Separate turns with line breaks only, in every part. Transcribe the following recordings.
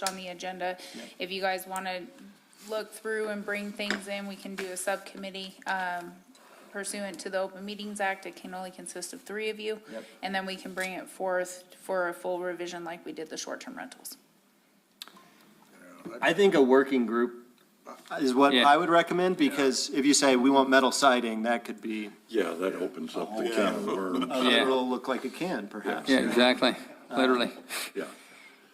on the agenda. If you guys want to look through and bring things in, we can do a subcommittee um, pursuant to the Open Meetings Act. It can only consist of three of you.
Yep.
And then we can bring it forth for a full revision like we did the short-term rentals.
I think a working group is what
Yeah.
I would recommend, because if you say, we want metal siding, that could be,
Yeah, that opens up the can of worms,
Yeah.
it'll look like a can, perhaps.
Yeah, exactly, literally.
yeah.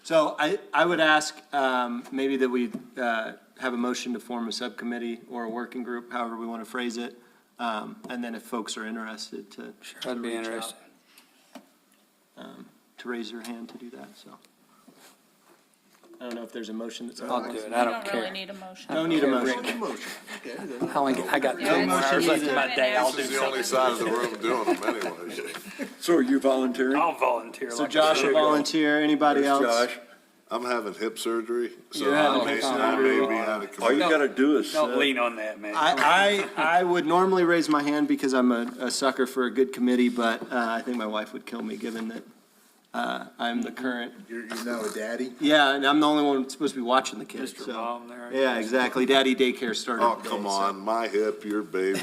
So I, I would ask, um, maybe that we, uh, have a motion to form a subcommittee or a working group, however we want to phrase it. Um, and then if folks are interested to. to
That'd be
reach out,
interesting.
um, To raise their hand to do that, so. I don't know if there's a motion that's.
I'll do it, I don't
We don't really
care.
need a motion.
No need a motion.
How long, I got
Yeah,
two more
motion
hours left in
needed.
my day, I'll do
This is the only side of the room doing them anyways.
So are you volunteering?
I'll volunteer.
So Josh, a volunteer, anybody
There's
else?
Josh.
I'm having hip surgery, so
You're having
I may,
hip
I may be
surgery.
out of
All you
commission.
gotta do is
Don't
sit.
lean on that, man.
I, I, I would normally raise my hand because I'm a, a sucker for a good committee, but, uh, I think my wife would kill me, given that, uh, I'm the current.
You're, you're now a daddy?
Yeah, and I'm the only one supposed to be watching the kids,
Mr.
so-
Mom there.
Yeah, exactly. Daddy daycare started.
Oh,
today,
come
so-
on, my hip, your baby.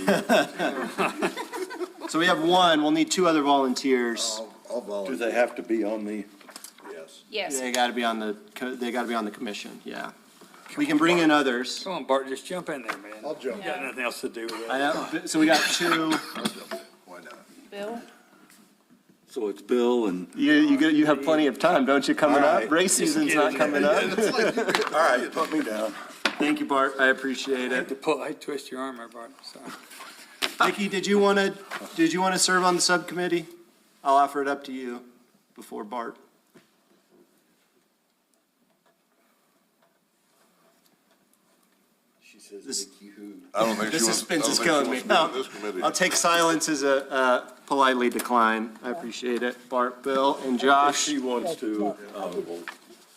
So we have one, we'll need two other
Oh.
volunteers.
I'll, I'll
Do
volunteer.
they have to be on the,
Yes.
Yes.
They gotta be on the, co- they gotta be on the commission, yeah. We can bring in others.
Come on, Bart, just jump in there, man.
I'll jump.
You got nothing else to do with
I
it.
know, so we got two.
I'll jump. Why not?
Bill?
so it's Bill and,
You, you, go- you have plenty of time, don't you, coming
All
up?
right.
Race season's
get
not
in
coming up.
all right, put me down.
Thank you, Bart, I appreciate
I
it.
had to pull, I twist your arm there, Bart, so.
Nikki, did you want to, did you want to serve on the subcommittee? I'll offer it up to you before Bart.
She says
This-
Nikki who.
I don't think
The
she wants, I
suspense
don't
is
think she
killing me.
wants to be on this committee.
I'll take silence as a uh, politely decline. I appreciate it. Bart, Bill, and
If
Josh,
she wants to, uh,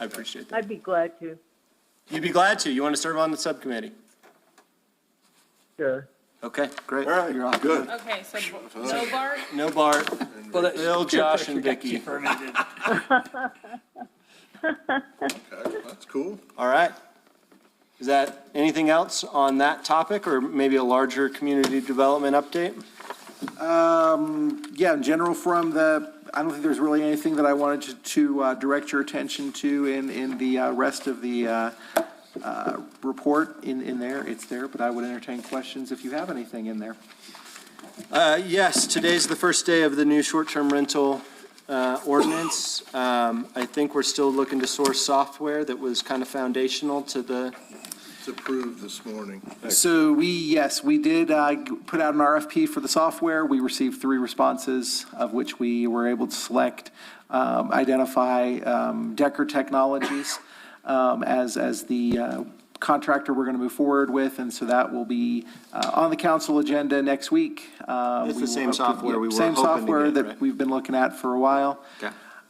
I appreciate that.
I'd be glad to,
You'd be glad to. You want to serve on the subcommittee?
sure.
Okay, great.
all
You're
right,
off.
good.
Okay, so, so Bart,
No Bart,
Well, that-
Bill, Josh, and
You
Vicky.
for a minute, didn't you?
Okay, That's cool.
All right. Is that anything else on that topic or maybe a larger community development update?
Um, yeah, in general, from the, I don't think there's really anything that I wanted to, to uh, direct your attention to in, in the uh, rest of the uh, uh, report in, in there. It's there, but I would entertain questions if you have anything in there.
Uh, Yes, today's the first day of the new short-term rental uh, ordinance. Um, I think we're still looking to source software that was kind of foundational to the,
It's approved this morning.
So we, yes, we did uh, g- put out an RFP for the software. We received three responses, of which we were able to select, um, identify um, Decker Technologies um, as, as the uh, contractor we're going to move forward with, and so that will be uh, on the council agenda next week. Uh,
It's the
we will
same
hope to-
software we were hoping
Same
to
software
get,
that
right?
we've been looking at for a while.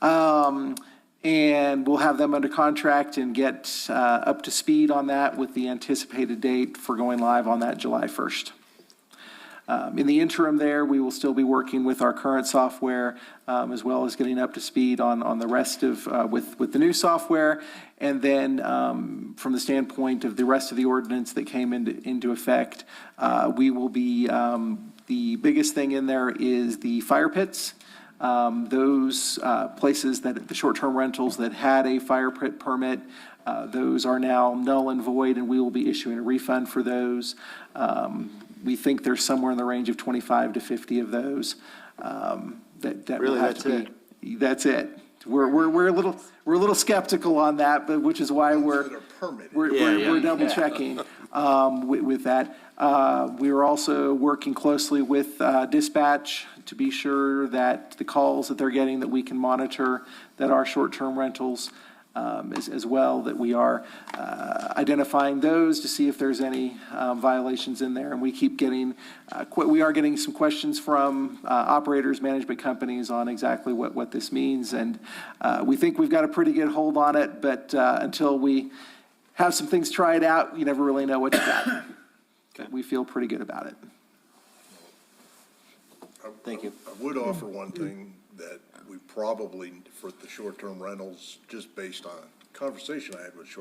Um, And we'll have them under contract and get uh, up to speed on that with the anticipated date for going live on that July 1st. Um, In the interim there, we will still be working with our current software um, as well as getting up to speed on, on the rest of, uh, with, with the new software. And then um, from the standpoint of the rest of the ordinance that came into, into effect, uh, we will be, um, the biggest thing in there is the fire pits. Um, Those uh, places that, the short-term rentals that had a fire pit permit, uh, those are now null and void, and we will be issuing a refund for those. Um, We think there's somewhere in the range of 25 to 50 of those um, that, that will
Really,
have
that's
to be. That's it. We're, we're, we're a little, we're a little skeptical on that, but, which is why we're.
That are permitted.
We're,
Yeah,
we're,
yeah.
we're double checking um, with, with that. Uh, We are also working closely with uh, dispatch to be sure that the calls that they're getting, that we can monitor, that are short-term rentals um, as, as well, that we are uh, identifying those to see if there's any uh, violations in there. And we keep getting, uh, que- we are getting some questions from uh, operators, management companies on exactly what, what this means. And uh, we think we've got a pretty good hold on it, but uh, until we have some things tried out, you never really know what you got. But We feel pretty good about it.
Thank you.
I would offer one thing that we probably, for the short-term rentals, just based on
conversation I had with Short